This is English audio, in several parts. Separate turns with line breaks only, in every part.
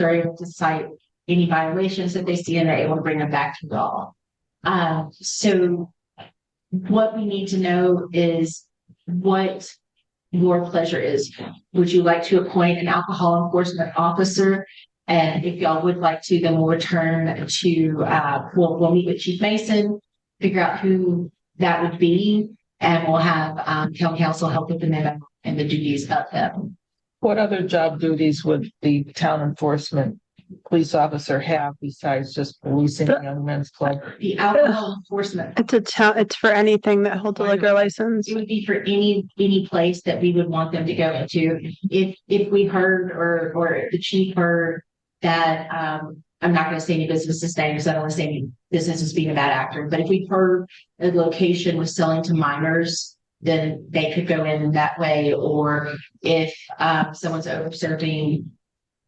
are able to cite any violations that they see and they're able to bring them back to y'all. Uh, so what we need to know is what your pleasure is. Would you like to appoint an alcohol enforcement officer? And if y'all would like to, then we'll return to, uh, we'll, we'll meet with Chief Mason, figure out who that would be, and we'll have, um, county council help with the memo and the duties of them.
What other job duties would the town enforcement police officer have besides just policing the young men's club?
The alcohol enforcement,
It's a town, it's for anything that holds a liquor license.
it would be for any, any place that we would want them to go into. If, if we heard or, or the chief heard that, um, I'm not gonna say any businesses name, because I don't wanna say any businesses being a bad actor, but if we heard a location was selling to minors, then they could go in that way, or if, um, someone's over serving,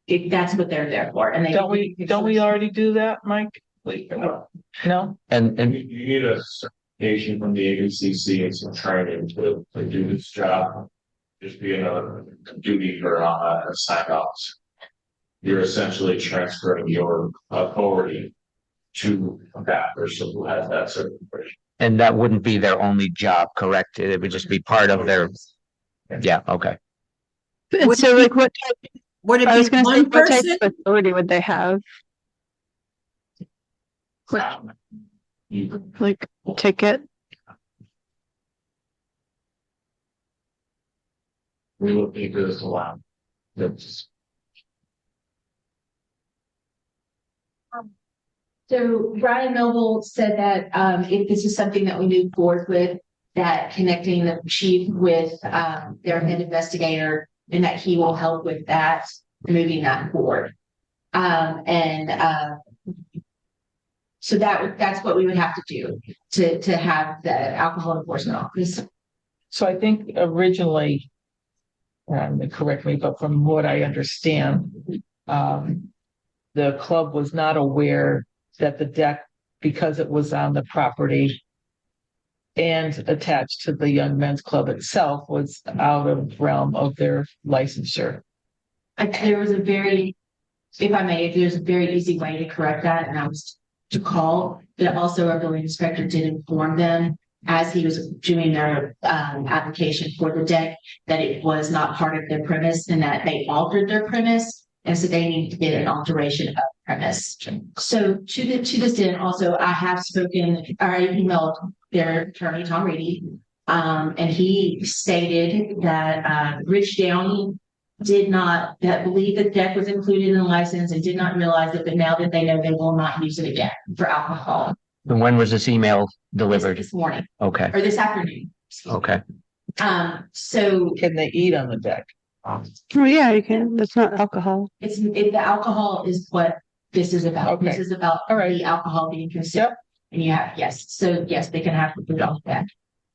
if that's what they're there for, and they.
Don't we, don't we already do that, Mike? Like, No?
And,
You,
and
you need a certification from the ABCC and some training to, to do this job. Just being a duty or a a sign off. You're essentially transferring your authority to that person who has that certification.
And that wouldn't be their only job, correct? It would just be part of their, yeah, okay.
And so like what, type-
Would
I was
it be
gonna say,
one
what type
person?
of authority would they have? What-
Um, You-
Like ticket?
We will be this allowed. That's.
So Brian Noble said that um if this is something that we move forward with, that connecting the chief with um their head investigator and that he will help with that, moving that forward. Um and uh so that would, that's what we would have to do to to have the alcohol enforcement office.
So I think originally, um, correct me, but from what I understand, um, the club was not aware that the deck, because it was on the property and attached to the young men's club itself, was out of realm of their licensure.
I- there was a very, if I may, there's a very easy way to correct that, and I was to call, but also our building inspector did inform them as he was doing their um application for the deck, that it was not part of their premise and that they altered their premise. And so they need to get an alteration of premise. So to the, to this end, also, I have spoken, or I emailed their attorney, Tom Reedy. Um, and he stated that uh Rich Downey did not, that believed that deck was included in the license and did not realize it, but now that they know, they will not use it again for alcohol.
And when was this email
This-
delivered?
This morning,
Okay,
or this afternoon.
Oh.
okay.
Um, so
Can they eat on the deck?
Oh, yeah, you can. That's not alcohol.
it's, it, the alcohol is what this is about. This
Okay.
is about
All right.
the alcohol being consumed.
Yep.
And you have, yes, so yes, they can have it off that.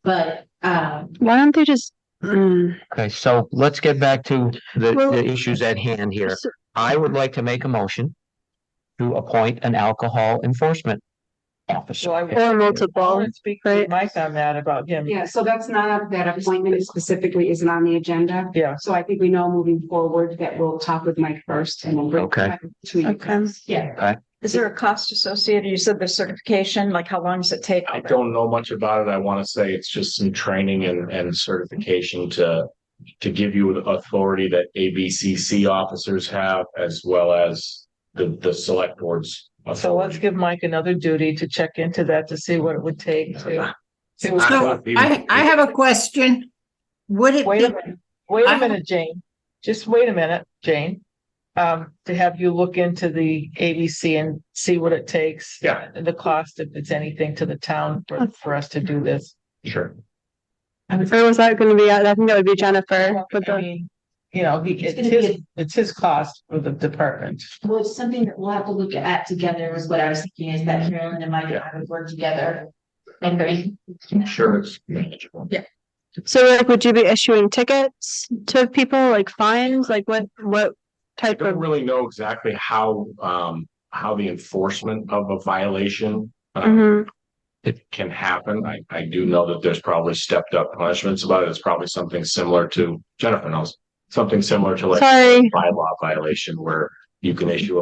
But, um,
Why don't they just, mm,
Okay, so let's get back to the,
Well-
the issues at hand here.
so-
I would like to make a motion to appoint an alcohol enforcement officer.
So I-
or
I
multiple?
want to speak to
right.
Mike on that about him.
Yeah, so that's not, that appointment specifically isn't on the agenda.
Yeah.
So I think we know moving forward that we'll talk with Mike first and we'll bring.
Okay.
Mike To you.
Okay.
yeah,
Is there a cost associated? You said the certification, like how long does it take?
I don't know much about it. I want to say it's just some training and, and certification to, to give you the authority that ABCC officers have as well as the, the select boards.
So let's
authority.
give Mike another duty to check into that to see what it would take to. see what-
So I, I have a question. Would it
Wait a
be,
minute, wait a
I-
minute, Jane. Just wait a minute, Jane. Um, to have you look into the ABC and see what it takes.
Yeah.
and The cost, if it's anything to the town for, for us to do this.
Sure.
Or was that gonna be, I think that would be Jennifer. with
I
the-
mean, You know, he,
It's
it's
gonna be
his, it's his cost for the department.
well, it's something that we'll have to look at together is what I was thinking is that Carolyn and Mike and I would work together. And bring
I'm sure it's manageable.
So like, would you be issuing tickets to people, like fines? Like what, what
I
type
don't
of?
really know exactly how, um, how the enforcement of a violation uh,
Mhm.
can happen. I, I do know that there's probably stepped up punishments about it. It's probably something similar to, Jennifer knows, something similar to like
Sorry.
bylaw violation where you can issue a